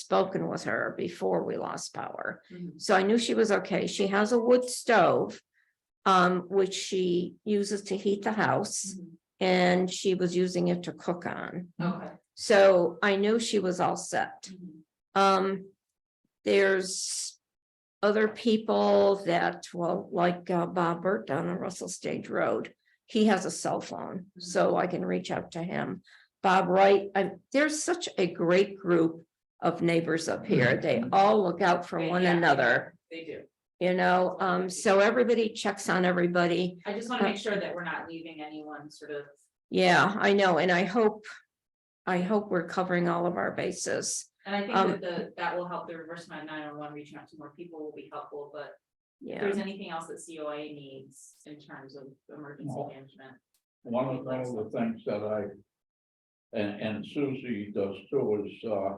spoken with her before we lost power. Mhm. So I knew she was okay. She has a wood stove. Um, which she uses to heat the house Mhm. and she was using it to cook on. Okay. So I knew she was all set. Mhm. Um, there's other people that, well, like uh, Bob Burt down on Russell Stage Road. He has a cell phone, Mm-hmm. so I can reach out to him. Bob Wright, and there's such a great group of neighbors up here. They all look out for Right, one Mm-hmm. yeah, another, They do. you know, um, so everybody checks on everybody. I just want to make sure that we're not leaving anyone sort of. Yeah, I know, and I hope, I hope we're covering all of our bases. And I Um, think that the, that will help the reverse nine nine one, reaching out to more people will be helpful, but if Yeah, there's anything else that COA needs in terms of emergency No. management. One of, one of the things that I. And, and Susie does too is, uh.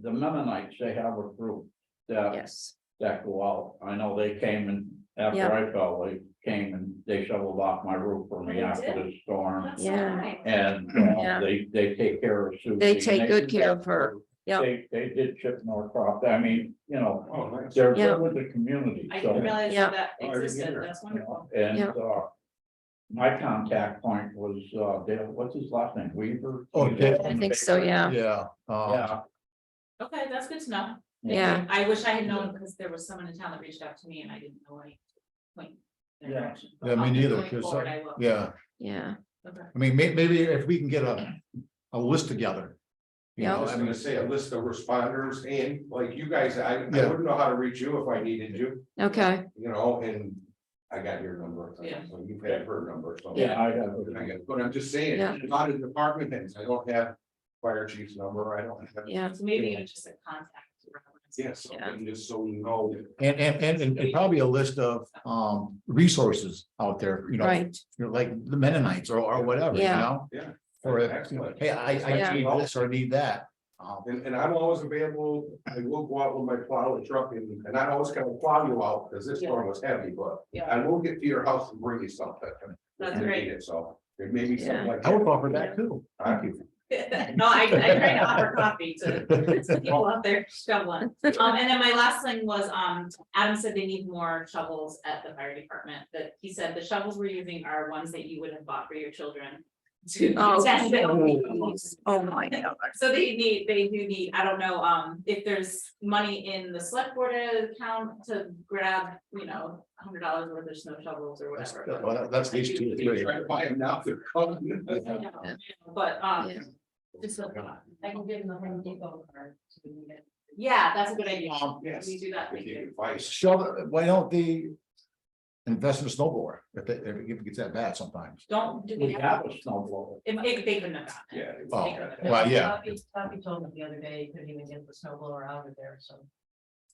The Mennonites, they have a group uh, that, yes, that go out. I know they came and after Yeah. Oh, I fell, they came and they shoveled off my roof for me They after did? the storm. That's Yeah. nice. um, And Yeah. uh, they, they take care of Susie. They and take good do care that of her. Yeah. They, they did chip Norcroft. I mean, you know, nice. they're Yeah. good with the community, I so. didn't realize Yeah. that Oh, you're existed. here. That's wonderful. And, Yeah. uh, my contact point was, uh, Dale, what's his last name, Weaver? Oh, Dale. I think so, yeah, Yeah. uh, Yeah, Okay, that's good to know. yeah, I wish I had known because there was someone in town that reached out to me and I didn't know any. point in their Yeah. direction. Yeah, me But neither, going 'cause, forward, uh, I will. Yeah, yeah, Okay. I mean, may- maybe if we can get a, a list together. you Yeah. know, I I was mean, gonna say a list of responders and like you guys, I, I Yeah. wouldn't know how to reach you if I needed you, okay, you know, and. I got your number, so Yeah. you've had her number, so. yeah, I have. I it. got- But I'm just saying, Yeah. a lot of department heads, I don't have fire chief's number, I don't have. yeah, So maybe even just a contact. reference. Yeah, something just so you know that. And, and, and- and, and probably a list of, um, resources out there, you know, right, you know, like the Mennonites or, or whatever, you Yeah. know? Yeah. Or, if, you know, Excellent. hey, I, Yeah. I need this or I need that. Um, And, and I'm always available, I will go out with my plow and truck and, and I always kind of plow you out, because this storm was heavy, but Yeah, I will get to your house and bring you something. That's If you great. need it, So, it may be something like. I would offer that too. Thank you. no, I, I try to offer coffee to to people out there shoveling. Um, and then my last thing was, um, Adam said they need more shovels at the fire department, that he said the shovels we're using are ones that you would have bought for your children. To Oh. test them. oh my God, So they need, they do need, I don't know, um, if there's money in the select board account to grab, you know, a hundred dollars worth of snow shovels or That's, whatever. well, that- that's at least two or three. Try to buy them now, they're coming. I know, But, um, Yeah. just a thought. I can give them the Home Depot card. Yeah, that's a good idea. Um, yes. We do that, If thank you you. can buy s- Shove, why don't they invest in a snowboard if it, if it gets that bad sometimes? Don't, do We we have, have a snowblower. if, if they couldn't have gotten it. Yeah. Oh, They couldn't have. well, yeah. Poppy, Poppy told me the other day, he couldn't even get the snow blower out of there, so.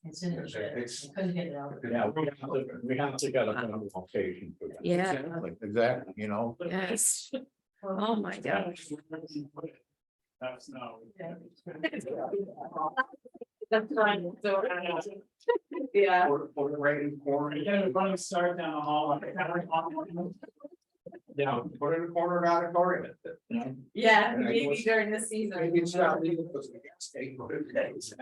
It's in the shed, It's- he couldn't get it out. Yeah, we have to, we have to get a better location for that. yeah, Exactly, Exactly, you know, yes, Well, oh my gosh. That's not. yeah. That's fine, so, I don't know. Yeah, Put- put it right in the corner. Yeah, put it in the corner and out of order. yeah, And I maybe was- during the season. Maybe it's not legal because of the gas tank, but it is.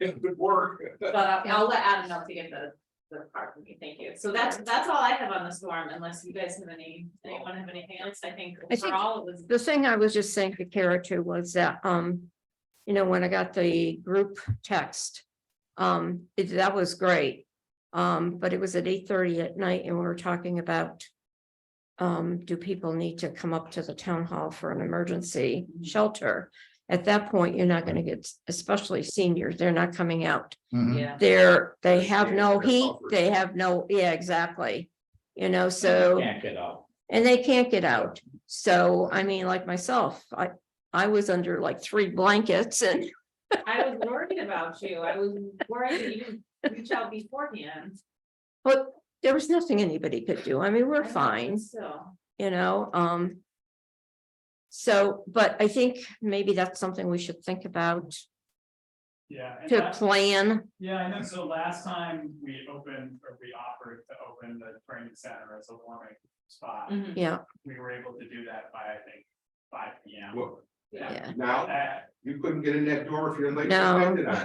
It would work. But uh, I'll let Adam know to get the, the card for me, thank you. So that's, that's all I have on the storm, unless you guys have any, anyone have anything else, I think I think- overall it was. The thing I was just saying to Kara too was that, um, you know, when I got the group text, um, it- that was great. Um, but it was at eight thirty at night and we were talking about, um, do people need to come up to the town hall for an emergency Mhm. shelter? At that point, you're not gonna get, especially seniors, they're not coming out. mhm. Yeah. They're, they There's have the- no there's heat, offers. they have no, yeah, exactly. You know, so, Can't get out. and they can't get out. So, I mean, like myself, I, I was under like three blankets and, I was worried about you, I was worried that you didn't reach out beforehand. but there was nothing anybody could do. I mean, we're fine, So, you know, um. So, but I think maybe that's something we should think about Yeah, and to last, plan. yeah, I know, so last time we opened, or we offered to open the training center as a warming spot, mhm. Yeah, we were able to do that by, I think, five P M. Well, yeah. Now, Uh, you couldn't get in that door if you're late. No. depended on it.